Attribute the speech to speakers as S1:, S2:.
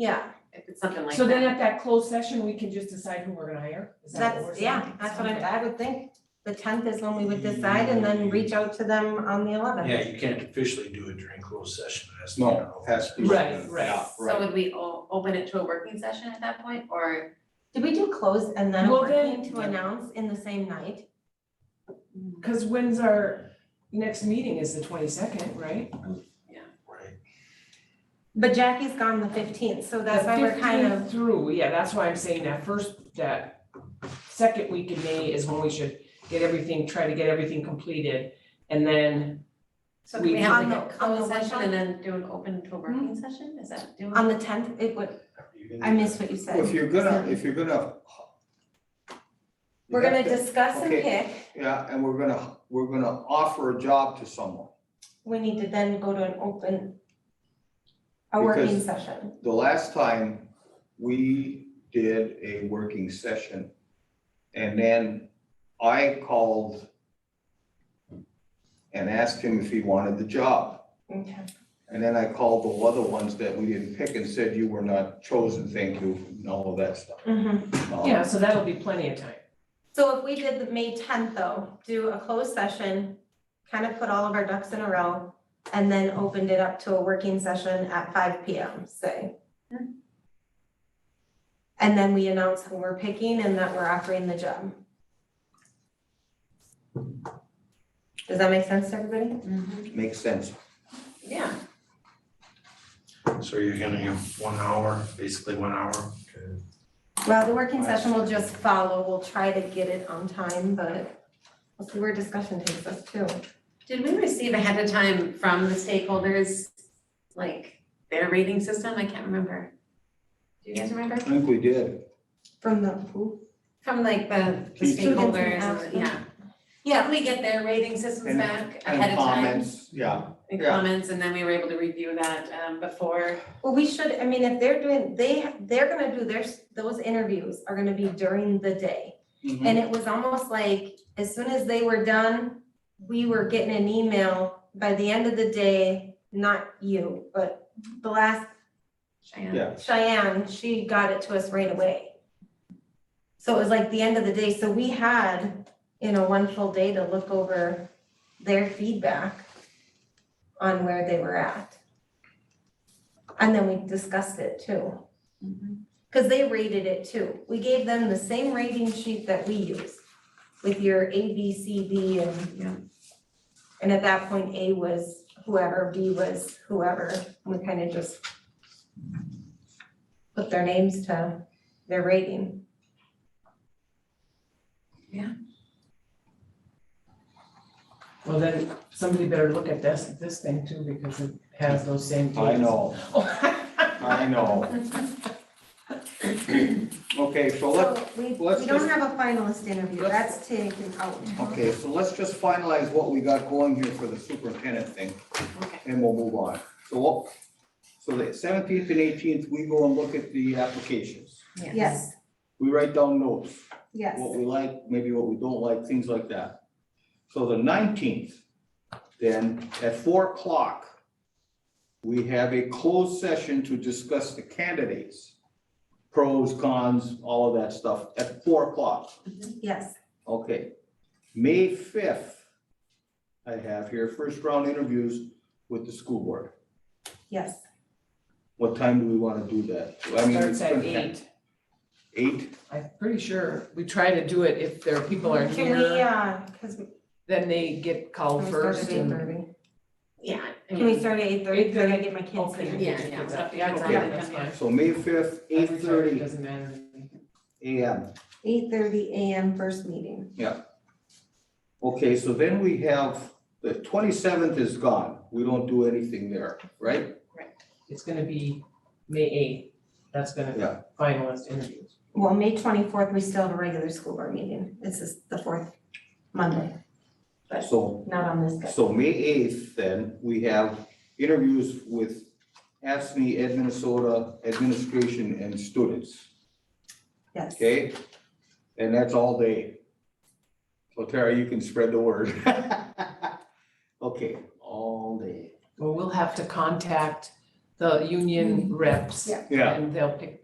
S1: Yeah,
S2: if it's something like that.
S3: So then at that closed session, we can just decide who we're gonna hire? Is that what we're
S1: that's, yeah,
S3: saying?
S1: that's what
S3: Okay. Mm.
S1: I, I would think. The tenth is when we would decide and then reach out to them on the eleventh.
S4: Yeah, you can't officially do it during closed session, it has to be.
S5: No, it has to be.
S3: Right, right.
S5: Yeah,
S2: So would we o- open it to a working session at that point, or
S1: Did we do close and then a
S3: Well,
S1: working
S3: then-
S1: to announce in the same night?
S3: Cause when's our next meeting is the twenty-second, right?
S4: Right,
S1: But Jackie's gone the fifteenth, so that's why we're kind
S3: The
S1: of,
S3: 15th Through, yeah, that's why I'm saying that first, that second week in May is when we should get everything, try to get everything completed. And then,
S2: so can we
S3: We-
S2: have
S1: On
S2: like a
S1: the- on the
S2: closed session Hmm.
S1: workshop?
S2: and then do an open to a working session, is that doing?
S1: on the tenth, it would,
S4: You can-
S1: I missed what you
S5: Well, If
S1: said.
S5: you're gonna, if you're gonna.
S1: We're gonna discuss and
S5: Okay.
S1: pick.
S5: Yeah, and we're gonna, we're gonna offer a job to someone.
S1: We need to then go to an open, a working
S5: Because-
S1: session.
S5: The last time we did a working session and then I called and asked him if he wanted the job.
S1: Okay.
S5: And then I called the other ones that we didn't pick and said, you were not chosen, thank you, and all of that stuff.
S3: Mm-hmm.
S1: Mhm.
S5: Um,
S3: yeah, so that'll be plenty of time.
S1: So if we did the May tenth though, do a closed session, kind of put all of our ducks in a row, and then opened it up to a working session at five P M, say. And then we announce who we're picking and that we're offering the job. Does that make sense to everybody?
S2: Mhm.
S5: Makes sense.
S2: Yeah,
S4: So you're gonna give one hour, basically one hour?
S1: Well, the working session will just follow, we'll try to get it on time, but we'll see where discussion takes us too.
S2: did we receive ahead of time from the stakeholders, like their rating system, I can't remember. Do you guys remember?
S5: I think we did.
S1: From the who?
S2: From like the the
S5: Students
S1: and
S2: stakeholders, and
S1: ask
S2: the-
S1: them.
S2: yeah. Yeah, we get their rating systems
S5: And-
S2: back
S5: And
S2: ahead of time.
S5: comments, Yeah,
S2: And
S5: yeah.
S2: comments, and then we were able to review that um before,
S1: Well, we should, I mean, if they're doing, they, they're gonna do their, those interviews are gonna be during the day.
S5: Mm.
S2: Mm-hmm.
S1: And it was almost like, as soon as they were done, we were getting an email by the end of the day, not you, but the last
S2: Cheyenne.
S5: Yeah.
S1: Cheyenne, she got it to us right away. So it was like the end of the day, so we had, you know, one full day to look over their feedback on where they were at. And then we discussed it too,
S2: Mhm.
S1: because they rated it too. We gave them the same rating sheet that we use with your A, B, C, D and
S2: Yeah.
S1: and at that point, A was whoever, B was whoever, we kind of just put their names to their rating.
S3: Well, then somebody better look at this, this thing too, because it has those same dates.
S5: I know, I know. Okay, so let,
S1: So we,
S5: let's
S1: we don't
S5: just-
S1: have a finalist interview,
S5: let's-
S1: that's taken out.
S5: okay, so let's just finalize what we got going here for the superintendent thing,
S2: Okay.
S5: and we'll move on. So what, so the seventeenth and eighteenth, we go and look at the applications.
S1: Yes,
S5: We write down notes,
S1: yes.
S5: what we like, maybe what we don't like, things like that. So the nineteenth, then at four o'clock, we have a closed session to discuss the candidates, pros, cons, all of that stuff at four o'clock.
S1: Yes,
S5: Okay. May fifth, I have here, first round interviews with the school board.
S1: yes.
S5: What time do we want to do that? I mean,
S3: Starts at
S5: it's gonna-
S3: eight.
S5: Eight?
S3: I'm pretty sure we try to do it if there are people are
S1: Can we,
S3: here,
S1: uh, cause we
S3: then they get
S1: can
S3: called
S1: we start
S3: first
S1: at eight
S3: and-
S1: thirty?
S2: Yeah. I
S1: Can we
S2: mean,
S1: start at eight thirty, I gotta
S3: 8:30?
S1: get my kids
S3: Okay.
S1: here.
S2: Yeah, yeah, it's up- yeah, it's
S3: Okay,
S2: up to
S3: that's
S2: them,
S3: fine.
S2: yeah.
S5: So May fifth, eight
S3: Every time, it
S5: thirty
S3: Doesn't matter. to me.
S5: AM.
S1: Eight thirty AM first meeting.
S5: Okay, so then we have, the twenty-seventh is gone. We don't do anything there, right?
S3: It's gonna be May eighth, that's gonna be
S5: Yeah.
S3: finalist interviews.
S1: Well, May twenty-fourth, we still have a regular school board meeting, this is the fourth Monday,
S5: So,
S1: not on this. schedule.
S5: so May eighth, then, we have interviews with ASME, Ed Minnesota Administration and students,
S1: Yes.
S5: okay? And that's all day. So Tara, you can spread the word. Okay, all day.
S3: Well, we'll have to contact the union reps.
S5: Yeah.
S3: And they'll pick